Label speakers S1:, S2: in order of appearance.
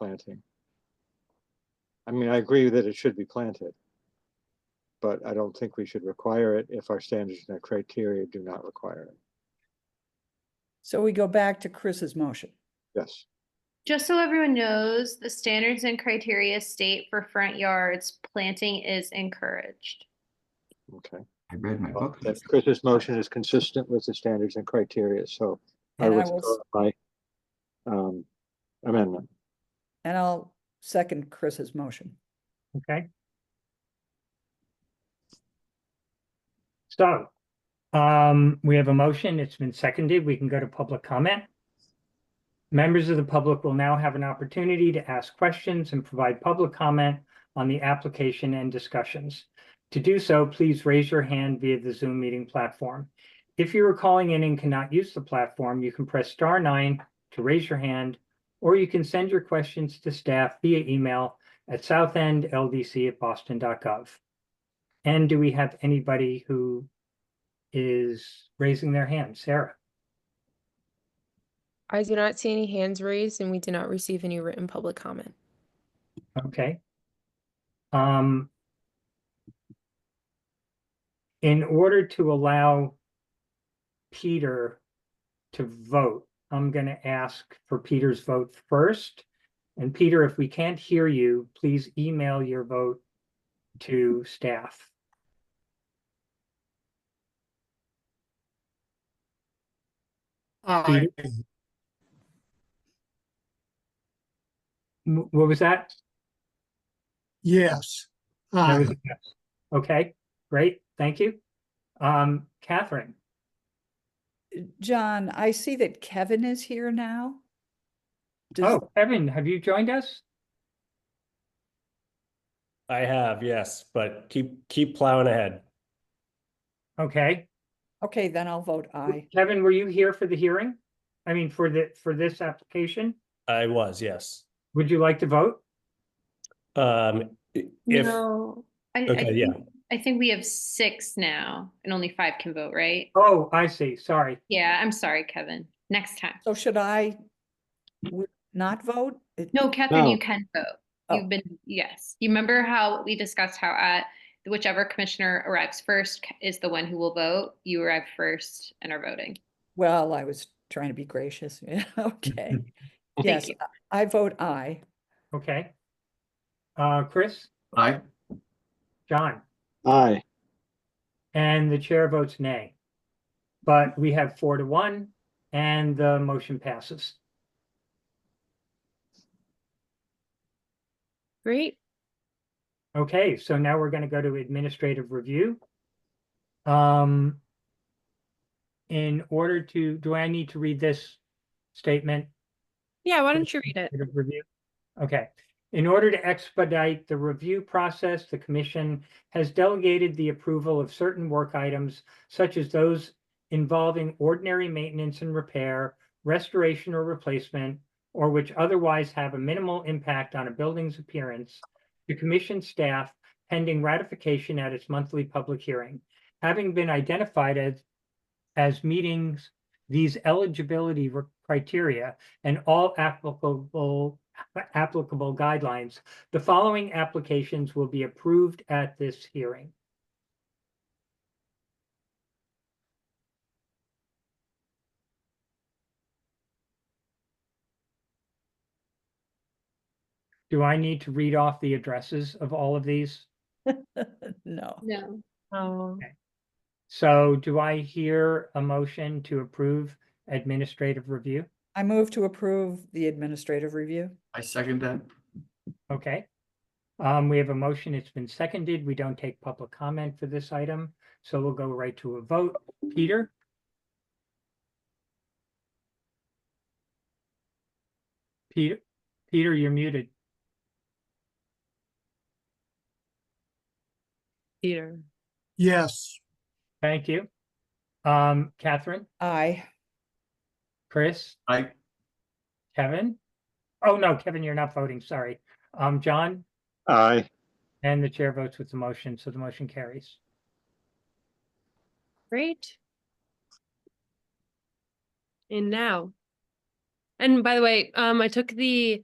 S1: planting. I mean, I agree that it should be planted. But I don't think we should require it if our standards and our criteria do not require it.
S2: So we go back to Chris's motion.
S1: Yes,
S3: Just so everyone knows, the standards and criteria state for front yards, planting is encouraged.
S1: okay.
S4: I read my
S1: Well,
S4: book.
S1: that Chris's motion is consistent with the standards and criteria, so I
S2: And I will,
S1: withdraw
S2: s-
S1: my um amendment.
S2: and I'll second Chris's motion.
S5: Okay. So, um, we have a motion. It's been seconded. We can go to public comment. Members of the public will now have an opportunity to ask questions and provide public comment on the application and discussions. To do so, please raise your hand via the Zoom meeting platform. If you are calling in and cannot use the platform, you can press star nine to raise your hand, or you can send your questions to staff via email at southendldc@boston.gov. And do we have anybody who is raising their hand? Sarah?
S6: I do not see any hands raised and we did not receive any written public comment.
S5: Okay. Um, in order to allow Peter to vote, I'm going to ask for Peter's vote first. And Peter, if we can't hear you, please email your vote to staff.
S7: Aye.
S5: M- What was that?
S7: Yes. Uh,
S5: That
S7: Aye.
S5: was a yes. Okay, great, thank you. Um, Catherine,
S2: John, I see that Kevin is here now. Does-
S5: oh, Evan, have you joined us?
S8: I have, yes, but keep keep plowing ahead.
S5: Okay,
S2: Okay, then I'll vote aye.
S5: Kevin, were you here for the hearing? I mean, for the, for this application?
S8: I was, yes.
S5: Would you like to vote?
S8: Um, i- if
S3: No. I, I
S8: Okay, yeah.
S3: think- I think we have six now and only five can vote, right?
S5: Oh, I see, sorry.
S3: Yeah, I'm sorry, Kevin. Next time.
S2: So should I w- not vote? It-
S3: No, Catherine, you
S1: No.
S3: can vote.
S2: Oh.
S3: You've been, yes. You remember how we discussed how at whichever commissioner arrives first c- is the one who will vote? You arrive first and are voting.
S2: Well, I was trying to be gracious. Yeah, okay. Yes,
S3: you.
S2: I- I vote aye.
S5: Okay. Uh, Chris,
S4: Aye.
S5: John,
S1: Aye,
S5: and the chair votes nay. But we have four to one and the motion passes.
S6: Great.
S5: Okay, so now we're gonna go to administrative review. Um. In order to, do I need to read this statement?
S6: Yeah, why don't you read it?
S5: Bit of Review. Okay. In order to expedite the review process, the commission has delegated the approval of certain work items such as those involving ordinary maintenance and repair, restoration or replacement, or which otherwise have a minimal impact on a building's appearance to commission staff pending ratification at its monthly public hearing. Having been identified as as meetings, these eligibility re- criteria and all applicable, applicable guidelines. The following applications will be approved at this hearing. Do I need to read off the addresses of all of these?
S2: No.
S3: No.
S6: Oh.
S5: So do I hear a motion to approve administrative review?
S2: I move to approve the administrative review.
S4: I second that.
S5: Okay. Um, we have a motion. It's been seconded. We don't take public comment for this item, so we'll go right to a vote. Peter, Peter, Peter, you're muted.
S6: Peter.
S7: Yes.
S5: Thank you. Um, Catherine,
S2: Aye.
S5: Chris,
S4: I
S5: Kevin? Oh, no, Kevin, you're not voting. Sorry. Um, John,
S1: aye,
S5: and the chair votes with the motion, so the motion carries.
S6: Great. And now. And by the way, um, I took the